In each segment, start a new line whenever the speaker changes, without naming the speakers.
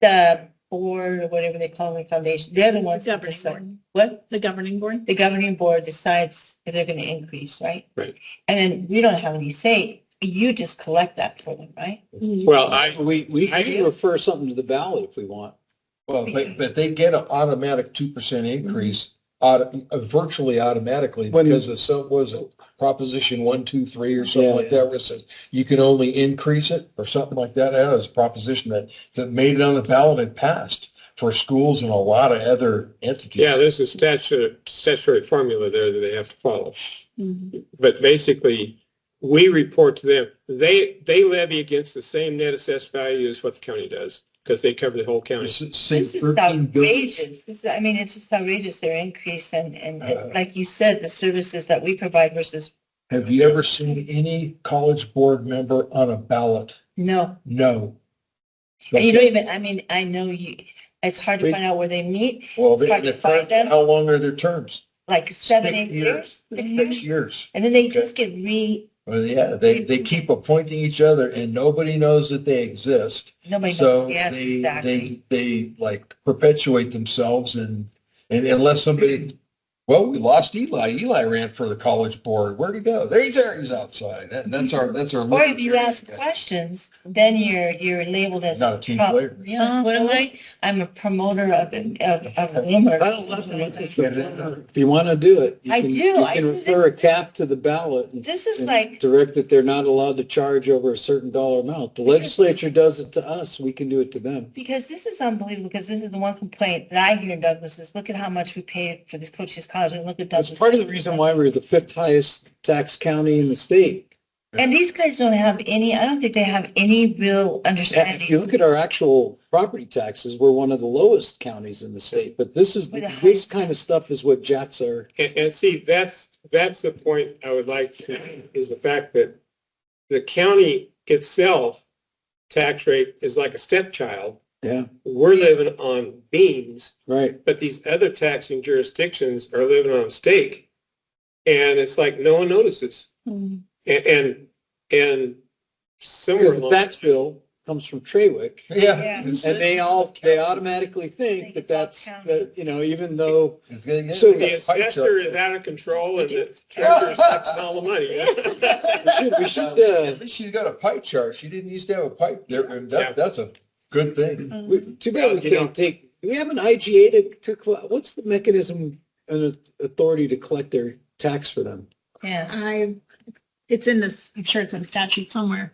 the board or whatever they call the foundation, they're the
The
ones that
governing
decide.
board.
What?
The governing board.
The governing board decides if they're going to increase, right?
Right.
And then we don't have any say. You just collect that for them, right?
Well, I,
We, we
I
can
do.
refer something to the ballot if we want.
Well, but, but they get an automatic two percent increase, auto- uh, virtually automatically,
When-
because of some, was it Proposition one, two, three, or something
Yeah.
like that, where it says you can only increase it, or something like that, that was a proposition that, that made it on the ballot and passed for schools and a lot of other entities.
yeah, there's a statutory, statutory formula there that they have to follow.
Mhm.
But basically, we report to them, they, they levy against the same net assessed value as what the county does, because they cover the whole county.
It's- it's
This is
$13 billion.
outrageous. This, is- I mean, it's just outrageous, their increase and, and
Uh-huh.
Uh.
like you said, the services that we provide versus,
Have you ever seen any college board member on a ballot?
no.
No.
And you don't even, I mean, I know you, it's hard to
We-
find out where they meet,
Well,
it's
they,
hard to
they find-
find them.
how long are their terms?
like seven,
Six
eight years. Mm-hmm. six
Six
years.
years.
And then they just get re,
Well, yeah, they, they keep appointing each other and nobody knows that they exist.
nobody
So
knows. Yes,
they,
exactly.
they, they like perpetuate themselves and, and unless somebody, well, we lost Eli. Eli ran for the college board. Where'd he go? There he's there. He's outside. That- that's our, that's our.
Or if you
libertarian
ask
guy.
questions, then you're, you're labeled as.
Not a team
pro-
player.
Um,
Yeah, what am I? I'm a promoter of, an- of, of rumor.
I don't love it. If you want to do it. you
I
can-
do.
You
I
can
do.
refer a cap to the ballot and
This is
and
like,
direct that they're not allowed to charge over a certain dollar amount. The legislature does it to us, we can do it to them.
because this is unbelievable, because this is the one complaint that I hear in Douglas is look at how much we pay for this coaches college and look at
That's
Douglas.
part of the reason why we're the fifth highest tax county in the state.
And these guys don't have any, I don't think they have any real
Yeah, If you
understanding.
look at our actual property taxes, we're one of the lowest counties in the state, but this is,
We're the
this kind of stuff is what jacks are.
And, and see, that's, that's the point I would like to, is the fact that the county itself tax rate is like a stepchild.
Yeah.
We're living on beans
Right.
but these other taxing jurisdictions are living on steak. And it's like no one notices.
Mhm.
And and, and somewhere
Because the
along,
tax bill comes from Trawick.
Yeah.
Yeah.
And they all, they automatically think that that's, that, you know, even though,
It's gonna get-
So
the assessor is out of control and the treasurer is taking all the money.
we should, we should,
At
uh,
least she's got a pie chart. She didn't used to have a pipe there. and
Yeah.
That, that's a good thing.
we, too bad we can't take, do we have an IGA to, to, collect- what's the mechanism and authority to collect their tax for them?
Yeah.
I, it's in this, I'm sure it's in statute somewhere.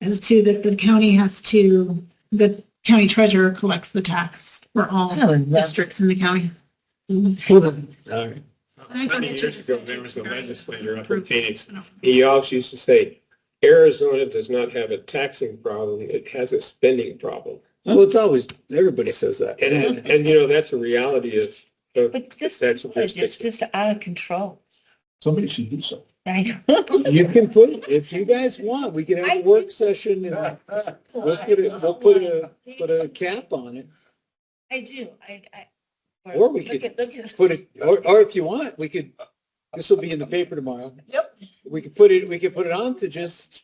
As to that the county has to, the county treasurer collects the tax for all
I would love
districts in the county.
All right.
I think
Many
it's
years
just-
ago, there was a legislator up in Phoenix. He always used to say, Arizona does not have a taxing problem, it has a spending problem.
Well, it's always, everybody says that.
And, and you know, that's a reality of, of
But this
taxing
college is
jurisdictions.
just out of control.
Somebody should do something.
I know.
You can put, it if you guys want, we can have a work session and we'll put it, we'll put a, put a cap on it.
I do, I, I.
Or we
look
could-
at- look at-
Put it, or, or if you want, we could, this will be in the paper tomorrow.
Yep.
We could put it, we could put it on to just,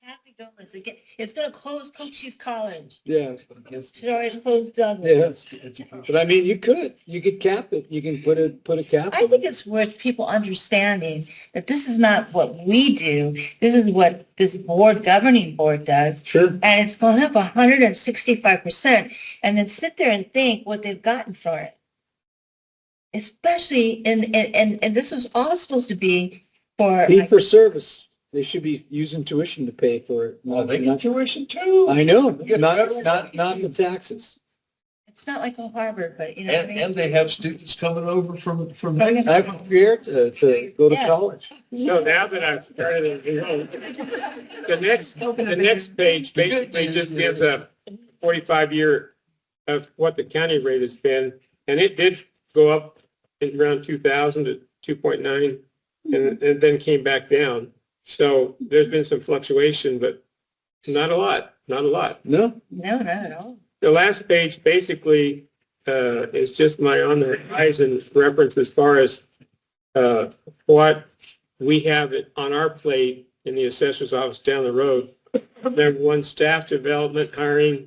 Happy Douglas, again, it's gonna close Cochise College,
yeah,
it's already closed Douglas.
yeah. But I mean, you could, you could cap it, you can put a, put a cap on
I think
it.
it's worth people understanding that this is not what we do, this is what this board, governing board does.
Sure.
And it's going up hundred and sixty-five percent, and then sit there and think what they've gotten for it. Especially in, and, and, and this was all supposed to be for,
Fee for service, they should be using tuition to pay for it.
Well,
not-
they get
not-
tuition too.
I know,
Yeah,
not,
federal-
not, not the taxes.
it's not like a Harvard, but you know what I
And,
mean?
and they have students coming over from, from.
I I prepared to, to go to
Yeah.
college.
No, now that I've started it, you know, the next, the next page basically just gives a forty-five year of what the county rate has been, and it did go up in around two thousand to two point nine, and, and then came back down. So there's been some fluctuation, but not a lot, not a lot.
No,
No, not at all.
The last page basically uh, is just my on the horizon reference as far as uh, what we have it on our plate in the assessor's office down the road. Number one, staff development, hiring,